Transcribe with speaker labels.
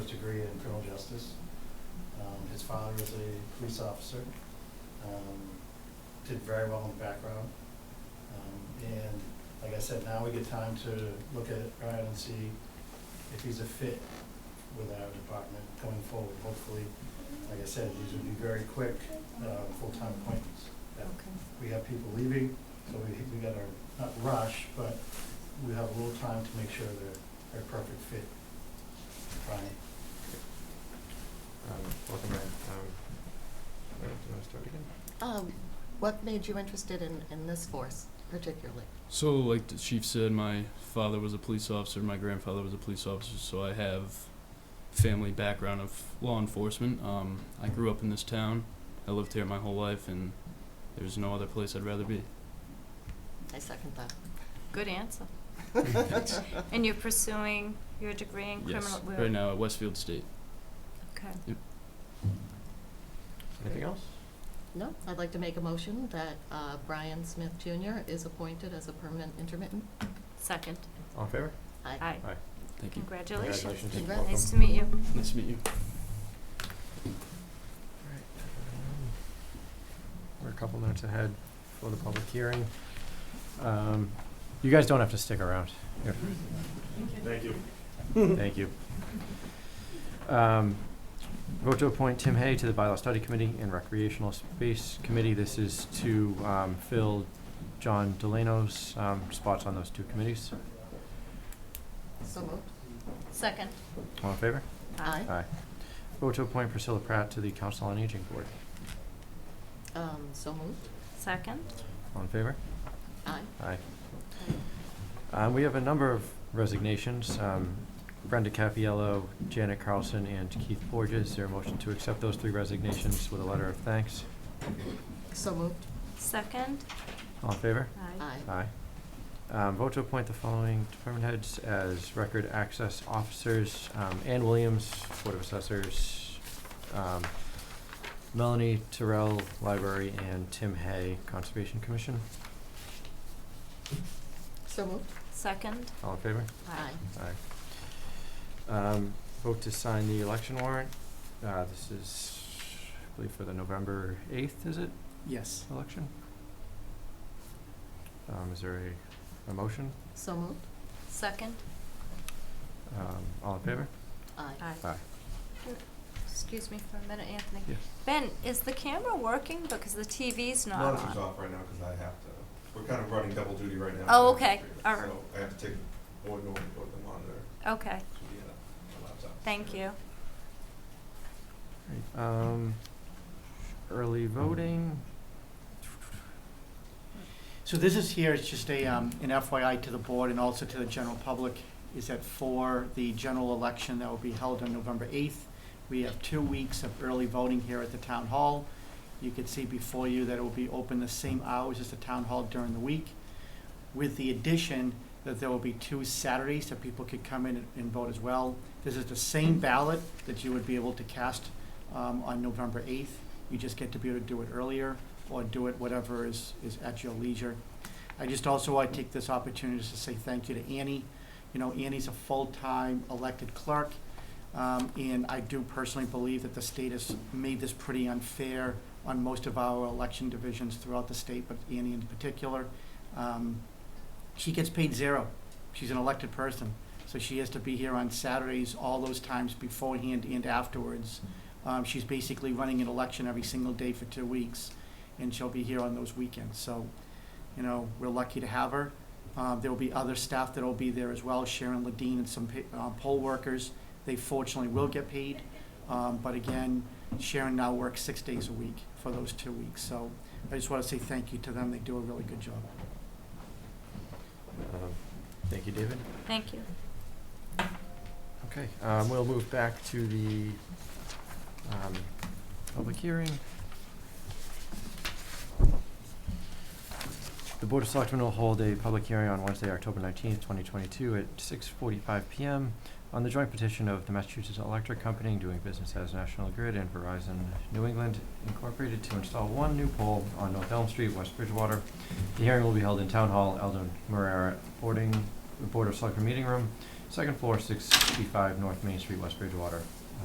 Speaker 1: degree in criminal justice. Um, His father was a police officer, um, did very well in the background. Um, And like I said, now we get time to look at Ryan and see if he's a fit with our department going forward. Hopefully, like I said, these would be very quick, uh, full-time appointments. Yeah.
Speaker 2: Okay,
Speaker 1: We have people leaving, so we, we gotta, not rush, but we have a little time to make sure they're, they're a perfect fit. Brian,
Speaker 3: Um, welcome back. Um, wait, do you want to start again?
Speaker 2: um, what made you interested in, in this force particularly?
Speaker 4: So, like the chief said, my father was a police officer, my grandfather was a police officer, so I have family background of law enforcement. Um, I grew up in this town. I lived here my whole life, and there's no other place I'd rather be.
Speaker 2: I second that.
Speaker 5: Good answer. And you're pursuing your degree in criminal...
Speaker 4: yes,
Speaker 5: we're-
Speaker 4: right now at Westfield State.
Speaker 5: Okay.
Speaker 3: Anything else?
Speaker 2: No, I'd like to make a motion that, uh, Brian Smith Junior is appointed as a permanent intermittent.
Speaker 5: Second.
Speaker 3: All in favor?
Speaker 5: Aye.
Speaker 4: Thank you.
Speaker 5: Congratulations.
Speaker 2: Congrats.
Speaker 3: Welcome.
Speaker 5: Nice to meet you.
Speaker 4: Nice to meet you.
Speaker 3: Um, We're a couple minutes ahead for the public hearing. Um, you guys don't have to stick around. If-
Speaker 1: Thank you.
Speaker 3: Thank you. Um, Vote to appoint Tim Hay to the Bylaw Study Committee and Recreational Space Committee. This is to um, fill John Delano's um, spots on those two committees.
Speaker 2: So moved.
Speaker 5: Second.
Speaker 3: All in favor?
Speaker 2: Aye.
Speaker 3: Aye. Vote to appoint Priscilla Pratt to the Council on Aging Board.
Speaker 2: Um, so moved.
Speaker 5: Second.
Speaker 3: All in favor?
Speaker 2: Aye.
Speaker 3: Aye. Um, we have a number of resignations. Um, Brenda Capiello, Janet Carlson, and Keith Borges. Is there a motion to accept those three resignations with a letter of thanks?
Speaker 2: So moved.
Speaker 5: Second.
Speaker 3: All in favor?
Speaker 2: Aye.
Speaker 3: Aye. Um, vote to appoint the following department heads as record access officers, um, Ann Williams, Board of Assessors, um, Melanie Terrell, Library, and Tim Hay, Conservation Commission.
Speaker 2: So moved.
Speaker 5: Second.
Speaker 3: All in favor?
Speaker 2: Aye.
Speaker 3: Aye. Um, vote to sign the election warrant. Uh, this is, I believe, for the November eighth, is it,
Speaker 1: Yes.
Speaker 3: election? Um, is there a, a motion?
Speaker 2: So moved.
Speaker 5: Second.
Speaker 3: Um, all in favor?
Speaker 2: Aye.
Speaker 5: Aye.
Speaker 3: Aye.
Speaker 5: Excuse me for a minute, Anthony.
Speaker 3: Yes.
Speaker 5: Ben, is the camera working? Because the TV's not on.
Speaker 6: Monitor's off right now because I have to, we're kind of running double duty right now.
Speaker 5: Oh, okay.
Speaker 6: So
Speaker 5: All right.
Speaker 6: I have to take one over for the monitor
Speaker 5: Okay,
Speaker 6: to the, uh, my laptop.
Speaker 5: thank you.
Speaker 3: Right, Um, early voting,
Speaker 7: So this is here, it's just a, um, an FYI to the board and also to the general public, is that for the general election that will be held on November eighth, we have two weeks of early voting here at the town hall. You can see before you that it will be open the same hours as the town hall during the week, with the addition that there will be two Saturdays that people could come in and- and vote as well. This is the same ballot that you would be able to cast, um, on November eighth. You just get to be able to do it earlier or do it whatever is, is at your leisure. I just also want to take this opportunity to say thank you to Annie. You know, Annie's a full-time elected clerk, um, and I do personally believe that the state has made this pretty unfair on most of our election divisions throughout the state, but Annie in particular. Um, she gets paid zero. She's an elected person, so she has to be here on Saturdays, all those times beforehand and afterwards. Um, she's basically running an election every single day for two weeks, and she'll be here on those weekends. So, you know, we're lucky to have her. Uh, there will be other staff that will be there as well, Sharon Ladine and some pa- uh, poll workers. They fortunately will get paid, um, but again, Sharon now works six days a week for those two weeks. So I just want to say thank you to them. They do a really good job.
Speaker 3: um, thank you, David.
Speaker 5: Thank you.
Speaker 3: Okay, um, we'll move back to the, um, public hearing. The Board of Selectmen will hold a public hearing on Wednesday, October nineteenth, twenty twenty-two at six forty-five PM on the joint petition of the Massachusetts Electric Company doing business as National Grid and Verizon New England Incorporated to install one new pole on North Elm Street, West Bridgewater. The hearing will be held in Town Hall, Eldon Marrera Boarding, Board of Selectmen Meeting Room, Second floor, six fifty-five North Main Street, West Bridgewater.